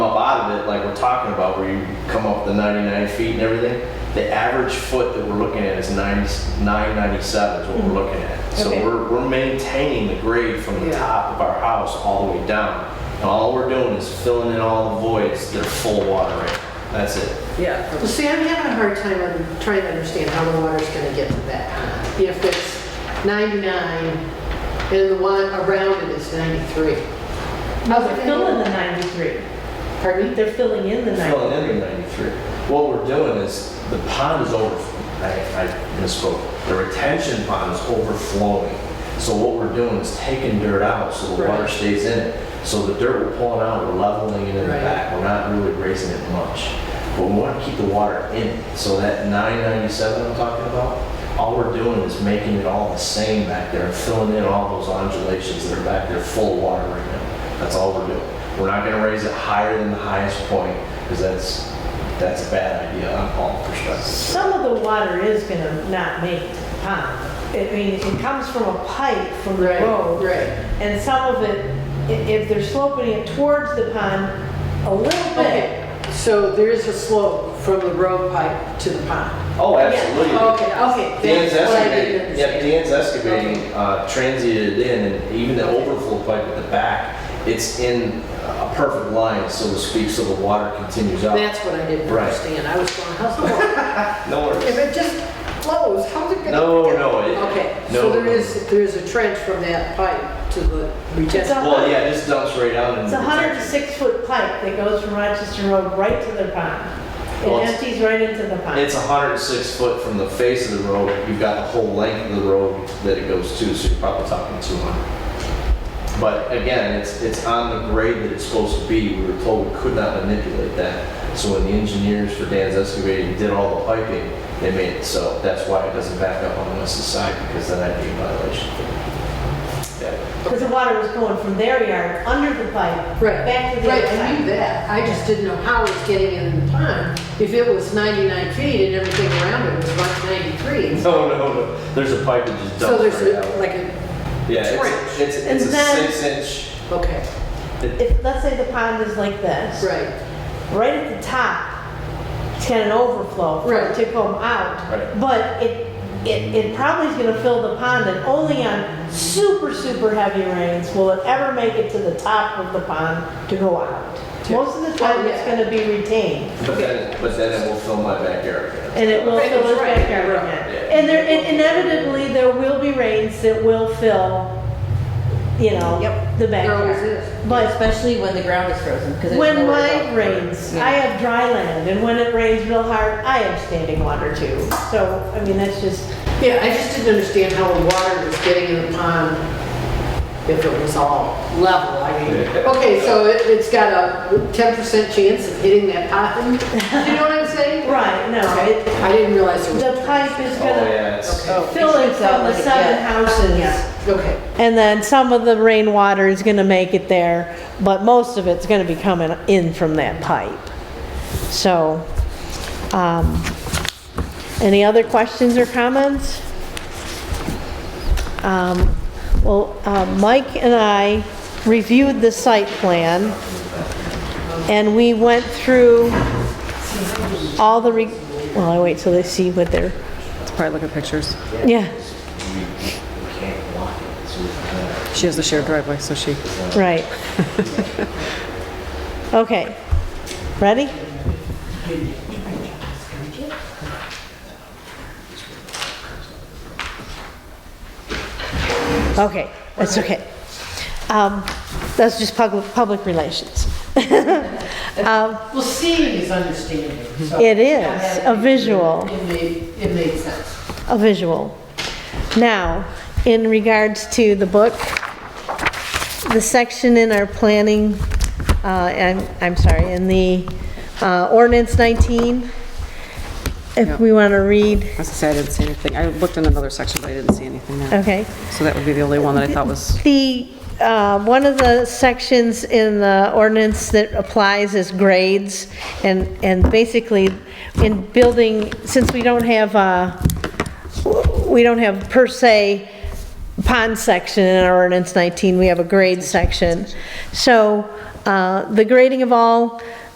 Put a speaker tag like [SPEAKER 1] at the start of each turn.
[SPEAKER 1] that like we're talking about, where you come up with the 99 feet and everything, the average foot that we're looking at is 90, 997 is what we're looking at. So
[SPEAKER 2] Okay.
[SPEAKER 1] we're, we're maintaining the grade from the
[SPEAKER 3] Yeah.
[SPEAKER 1] top of our house all the way down. And all we're doing is filling in all the voids that are full of water right now. That's it.
[SPEAKER 3] Yeah.
[SPEAKER 4] Well, see, I'm having a hard time on trying to understand how the water's gonna get to that. If it's 99 and the one around it is 93.
[SPEAKER 2] Oh, they're filling the 93.
[SPEAKER 4] Pardon me?
[SPEAKER 2] They're filling in the 93.
[SPEAKER 1] filling in the 93. What we're doing is, the pond is over, I I misspoke, the retention pond is overflowing. So what we're doing is taking dirt out so the water
[SPEAKER 4] Right.
[SPEAKER 1] stays in it. So the dirt we're pulling out, we're leveling it in the
[SPEAKER 4] Right.
[SPEAKER 1] back, we're not really raising it much. But we want to keep the water in it. So that 997 I'm talking about, all we're doing is making it all the same back there, and filling in all those undulations that are back there full of water right now. That's all we're doing. We're not gonna raise it higher than the highest point, because that's, that's a bad idea on all perspectives.
[SPEAKER 2] Some of the water is gonna not make it to the pond. I mean, it comes from a pipe from the
[SPEAKER 4] Right,
[SPEAKER 2] road.
[SPEAKER 4] right.
[SPEAKER 2] And some of it, i- if they're sloping it towards the pond a little bit,
[SPEAKER 4] Okay, so there is a slope from the road pipe to the pond.
[SPEAKER 1] Oh, absolutely.
[SPEAKER 4] Okay, okay.
[SPEAKER 1] Dan's
[SPEAKER 4] That's what I didn't
[SPEAKER 1] excavating, yep,
[SPEAKER 4] understand.
[SPEAKER 1] Dan's excavating, uh, transited it in, and even the overflow pipe at the back, it's in a perfect line, so to speak, so the water continues out.
[SPEAKER 4] That's what I didn't
[SPEAKER 1] Right.
[SPEAKER 4] understand. I was going, how's the water?
[SPEAKER 1] No
[SPEAKER 4] If
[SPEAKER 1] worries.
[SPEAKER 4] it just flows, how's it gonna?
[SPEAKER 1] No, no, it-
[SPEAKER 4] Okay,
[SPEAKER 1] no,
[SPEAKER 4] so there
[SPEAKER 1] no.
[SPEAKER 4] is, there is a trench from that pipe to the retention.
[SPEAKER 2] a-
[SPEAKER 1] Well, yeah, it just dumps right out in
[SPEAKER 2] it's
[SPEAKER 1] the
[SPEAKER 2] a hundred and
[SPEAKER 1] retention.
[SPEAKER 2] six foot pipe that goes from Rochester Road right to the pond.
[SPEAKER 1] Well,
[SPEAKER 2] It
[SPEAKER 1] it's-
[SPEAKER 2] empties right into the pond.
[SPEAKER 1] It's 106 foot from the face of the road. You've got the whole length of the road that it goes to, so you're probably talking 200. But again, it's, it's on the grade that it's supposed to be. We were told we could not manipulate that. So when the engineers for Dan's excavating did all the piping, they made it so. That's why it doesn't back up on Wes's side, because then that'd be a violation. Yeah.
[SPEAKER 2] Because the water was going from their yard, under the pipe,
[SPEAKER 4] Right,
[SPEAKER 2] back to the
[SPEAKER 4] right,
[SPEAKER 2] other
[SPEAKER 4] I knew
[SPEAKER 2] side.
[SPEAKER 4] that. I just didn't know how it's getting in the pond. If it was 99 feet and everything around it was like 93.
[SPEAKER 1] No, no, no. There's a pipe that just
[SPEAKER 4] So
[SPEAKER 1] dumps
[SPEAKER 4] there's
[SPEAKER 1] right
[SPEAKER 4] a-
[SPEAKER 1] out.
[SPEAKER 4] like a,
[SPEAKER 1] Yeah, it's,
[SPEAKER 4] trench.
[SPEAKER 1] it's it's
[SPEAKER 2] And
[SPEAKER 1] a
[SPEAKER 2] then-
[SPEAKER 1] six inch,
[SPEAKER 4] okay,
[SPEAKER 2] If, let's say the pond is like this.
[SPEAKER 4] right,
[SPEAKER 2] right at the top, it's got an overflow for it
[SPEAKER 4] Right.
[SPEAKER 2] to come out.
[SPEAKER 1] Right.
[SPEAKER 2] But it, it, it probably is gonna fill the pond and only on super, super heavy rains will it ever make it to the top of the pond to go out. Most
[SPEAKER 4] oh,
[SPEAKER 2] of the time, it's gonna be retained
[SPEAKER 1] but then, but then it will fill my backyard.
[SPEAKER 2] and it will
[SPEAKER 4] Right,
[SPEAKER 2] fill
[SPEAKER 4] that's
[SPEAKER 2] its
[SPEAKER 4] right.
[SPEAKER 2] backyard again. And there, and inevitably, there will be rains that will fill, you know,
[SPEAKER 4] Yep.
[SPEAKER 2] the
[SPEAKER 4] There always
[SPEAKER 2] backyard.
[SPEAKER 4] is.
[SPEAKER 2] But
[SPEAKER 3] Especially when the ground is frozen, because it's.
[SPEAKER 2] When
[SPEAKER 3] nowhere to
[SPEAKER 2] mine
[SPEAKER 3] go.
[SPEAKER 2] rains,
[SPEAKER 3] Yeah.
[SPEAKER 2] I have dry land, and when it rains real hard, I have standing water too. So, I mean, that's just,
[SPEAKER 4] Yeah, I just didn't understand how the water was getting in the pond if it was all level, I mean. Okay, so it, it's got a 10% chance of hitting that pond, you know what I'm saying?
[SPEAKER 2] right, no, it,
[SPEAKER 4] Okay, I didn't realize it was.
[SPEAKER 2] the pipe is
[SPEAKER 1] Oh,
[SPEAKER 2] gonna
[SPEAKER 1] yeah, it's.
[SPEAKER 4] Okay.
[SPEAKER 2] fill in from the seven houses.
[SPEAKER 4] Yeah, okay.
[SPEAKER 2] And then some of the rainwater is gonna make it there, but most of it's gonna be coming in from that pipe. So, um, any other questions or comments? Um, Well, uh, Mike and I reviewed the site plan, and we went through all the, re- well, I wait till they see what they're,
[SPEAKER 5] Probably look at pictures.
[SPEAKER 2] yeah,
[SPEAKER 5] She has the shared driveway, so she.
[SPEAKER 2] right. Okay, ready? Okay, that's okay. Um, That's just public, public relations. Um,
[SPEAKER 4] Well, seeing is understanding, so.
[SPEAKER 2] It is, a visual.
[SPEAKER 4] It made, it made sense.
[SPEAKER 2] a visual. Now, in regards to the book, the section in our planning, uh, and, I'm sorry, in the uh, ordinance 19, if
[SPEAKER 5] Yep.
[SPEAKER 2] we want to read,
[SPEAKER 5] I was gonna say, I didn't see anything. I looked in another section, but I didn't see anything there.
[SPEAKER 2] okay.
[SPEAKER 5] So that would be the only one that I thought was,
[SPEAKER 2] The, uh, one of the sections in the ordinance that applies is grades, and, and basically, in building, since we don't have, uh, we don't have per se pond section in our ordinance 19, we have a grade section. So uh, the grading of all